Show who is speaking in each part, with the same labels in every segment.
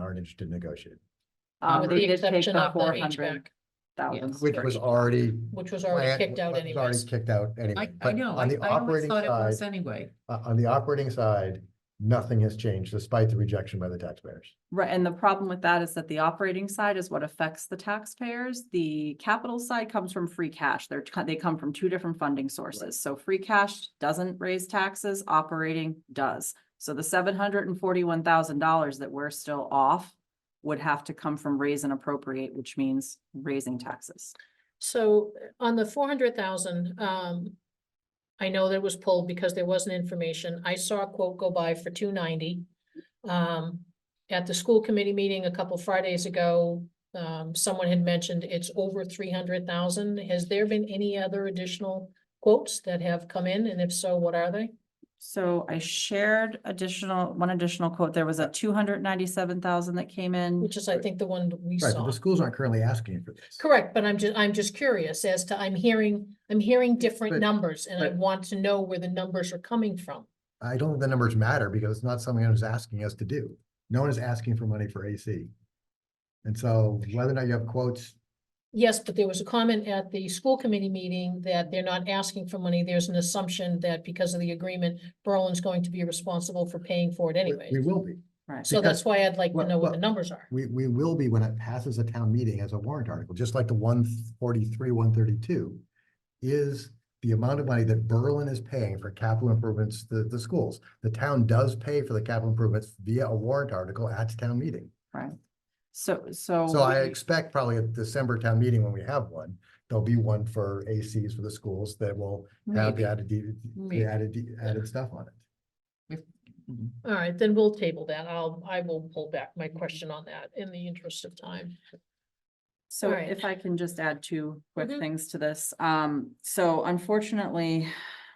Speaker 1: aren't interested in negotiating,
Speaker 2: Uh,
Speaker 3: Um,
Speaker 2: with
Speaker 3: they
Speaker 2: the
Speaker 3: did take
Speaker 2: exception
Speaker 3: the
Speaker 2: of the
Speaker 3: 400,000
Speaker 2: HVAC,
Speaker 1: which was already.
Speaker 2: which was already
Speaker 1: planned-
Speaker 2: kicked out
Speaker 1: was already
Speaker 2: anyways.
Speaker 1: Kicked out anyway.
Speaker 3: I, I
Speaker 1: But
Speaker 3: know, I
Speaker 1: On the
Speaker 3: I always
Speaker 1: operating
Speaker 3: thought it
Speaker 1: side,
Speaker 3: was anyway.
Speaker 1: uh, on the operating side, nothing has changed despite the rejection by the taxpayers.
Speaker 3: Right, and the problem with that is that the operating side is what affects the taxpayers. The capital side comes from free cash. They're, co- they come from two different funding sources. So free cash doesn't raise taxes, operating does. So the seven hundred and forty-one thousand dollars that we're still off would have to come from raise and appropriate, which means raising taxes.
Speaker 2: So uh, on the four hundred thousand, um, I know that it was pulled because there wasn't information. I saw a quote go by for two ninety. Um, at the school committee meeting a couple Fridays ago, um, someone had mentioned it's over three hundred thousand. Has there been any other additional quotes that have come in? And if so, what are they?
Speaker 3: So I shared additional, one additional quote. There was a two hundred ninety-seven thousand that came in.
Speaker 2: Which is, I think, the one that we
Speaker 1: Right, but
Speaker 2: saw.
Speaker 1: the schools aren't currently asking for this.
Speaker 2: Correct, but I'm just, I'm just curious as to, I'm hearing, I'm hearing different
Speaker 1: But-
Speaker 2: numbers and I
Speaker 1: but-
Speaker 2: want to know where the numbers are coming from.
Speaker 1: I don't think the numbers matter because it's not something anyone's asking us to do. No one is asking for money for AC. And so whether or not you have quotes,
Speaker 2: Yes, but there was a comment at the school committee meeting that they're not asking for money. There's an assumption that because of the agreement, Berlin's going to be responsible for paying for it
Speaker 1: we-
Speaker 2: anyway.
Speaker 1: we will be.
Speaker 3: Right.
Speaker 2: So that's why I'd like to
Speaker 1: well,
Speaker 2: know what the
Speaker 1: well,
Speaker 2: numbers are.
Speaker 1: We, we will be when it passes a town meeting as a warrant article, just like the one forty-three, one thirty-two is the amount of money that Berlin is paying for capital improvements to the schools. The town does pay for the capital improvements via a warrant article at town meeting.
Speaker 3: So, so.
Speaker 1: So I
Speaker 3: we-
Speaker 1: expect probably at December town meeting when we have one, there'll be one for ACs for the schools that will have the
Speaker 3: Maybe.
Speaker 1: added, de-
Speaker 3: Maybe.
Speaker 1: the added, de- added stuff on it.
Speaker 3: Mhm.
Speaker 2: All right, then we'll table that. I'll, I will pull back my question on that in the interest of time.
Speaker 3: So
Speaker 2: All right.
Speaker 3: if I can just add two quick
Speaker 2: Mhm.
Speaker 3: things to this, um, so unfortunately,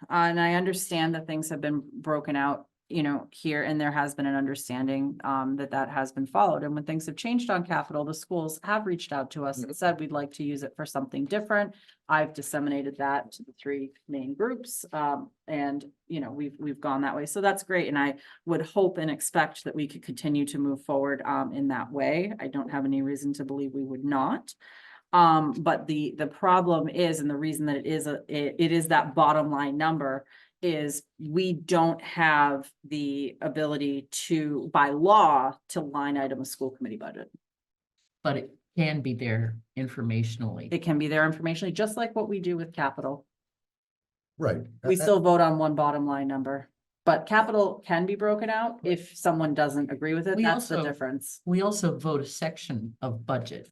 Speaker 3: uh, and I understand that things have been broken out, you know, here and there has been an understanding, um, that that has been followed. And when things have changed on capital, the schools have reached out to us and said, we'd like to use it for something different. I've disseminated that to the three main groups, um, and, you know, we've, we've gone that way. So that's great. And I would hope and expect that we could continue to move forward um in that way. I don't have any reason to believe we would not. Um, but the the problem is, and the reason that it is a, it- it is that bottom line number is we don't have the ability to, by law, to line item a school committee budget.
Speaker 4: but it can be there informationally.
Speaker 3: It can be there informationally, just like what we do with capital.
Speaker 1: Right.
Speaker 3: We
Speaker 1: A- a-
Speaker 3: still vote on one bottom line number, but capital can be broken out if someone doesn't agree with it.
Speaker 4: We
Speaker 3: That's the
Speaker 4: also-
Speaker 3: difference.
Speaker 4: We also vote a section of budget,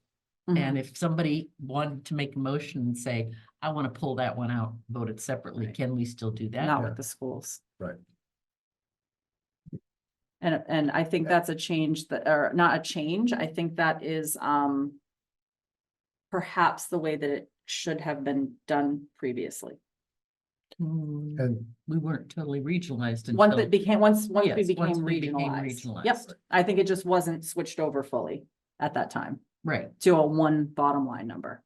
Speaker 3: Mhm.
Speaker 4: and if somebody wanted to make a motion and say, I want to pull that one out, vote it separately,
Speaker 3: Right.
Speaker 4: can we still do that?
Speaker 3: not
Speaker 1: Yeah.
Speaker 3: with the schools.
Speaker 1: Right.
Speaker 3: And, and I think that's a change that, or not a change, I think that is, um, perhaps the way that it should have been done previously.
Speaker 4: Hmm,
Speaker 1: And
Speaker 4: We weren't totally regionalized
Speaker 3: Once
Speaker 4: until,
Speaker 3: it became, once, once we
Speaker 4: Yes,
Speaker 3: became
Speaker 4: once we became
Speaker 3: regionalized. Yep,
Speaker 4: regionalized.
Speaker 3: I think it just wasn't switched over fully at that time
Speaker 4: right.
Speaker 3: to a one bottom line number.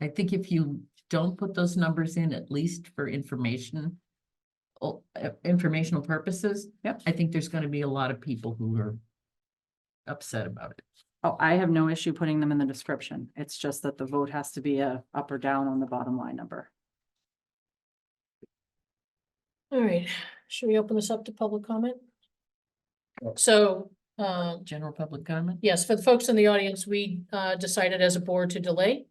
Speaker 4: I think if you don't put those numbers in, at least for information, oh, uh, informational purposes.
Speaker 3: Yep.
Speaker 4: I think there's going to be a lot of people who are upset about it.
Speaker 3: Oh, I have no issue putting them in the description. It's just that the vote has to be a up or down on the bottom line number.
Speaker 2: All right, should we open this up to public comment? So, um,
Speaker 4: General public comment?
Speaker 2: Yes, for the folks in the audience, we uh, decided as a board to delay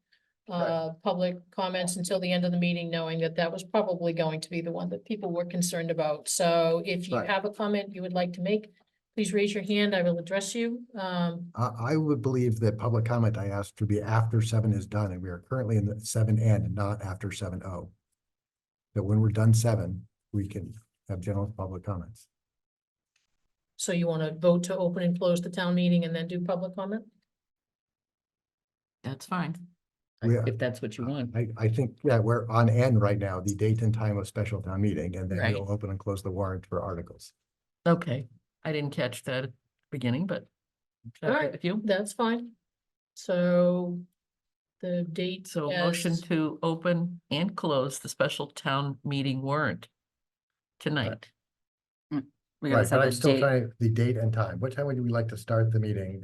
Speaker 2: uh, public comments until the end of the meeting, knowing that that was probably going to be the one that people were concerned about. So if you
Speaker 1: Right.
Speaker 2: have a comment you would like to make, please raise your hand. I will address you. Um,
Speaker 1: I, I would believe that public comment I asked to be after seven is done, and we are currently in the seven and not after seven oh. That when we're done seven, we can have general public comments.
Speaker 2: So you want to vote to open and close the town meeting and then do public comment?
Speaker 4: That's fine.
Speaker 1: Yeah.
Speaker 4: If that's what you want.
Speaker 1: I, I think, yeah, we're on end right now, the date and time of special town meeting, and then
Speaker 4: Right.
Speaker 1: we'll open and close the warrant for articles.
Speaker 4: Okay, I didn't catch that at the beginning, but. is that
Speaker 2: All
Speaker 4: okay
Speaker 2: right.
Speaker 4: With you,
Speaker 2: That's fine. So the date.
Speaker 4: so motion
Speaker 2: as-
Speaker 4: to open and close the special town meeting warrant tonight.
Speaker 3: We gotta
Speaker 1: Right,
Speaker 3: set
Speaker 1: but I'm
Speaker 3: the
Speaker 1: still
Speaker 3: date.
Speaker 1: trying, the date and time, what time would we like to start the meeting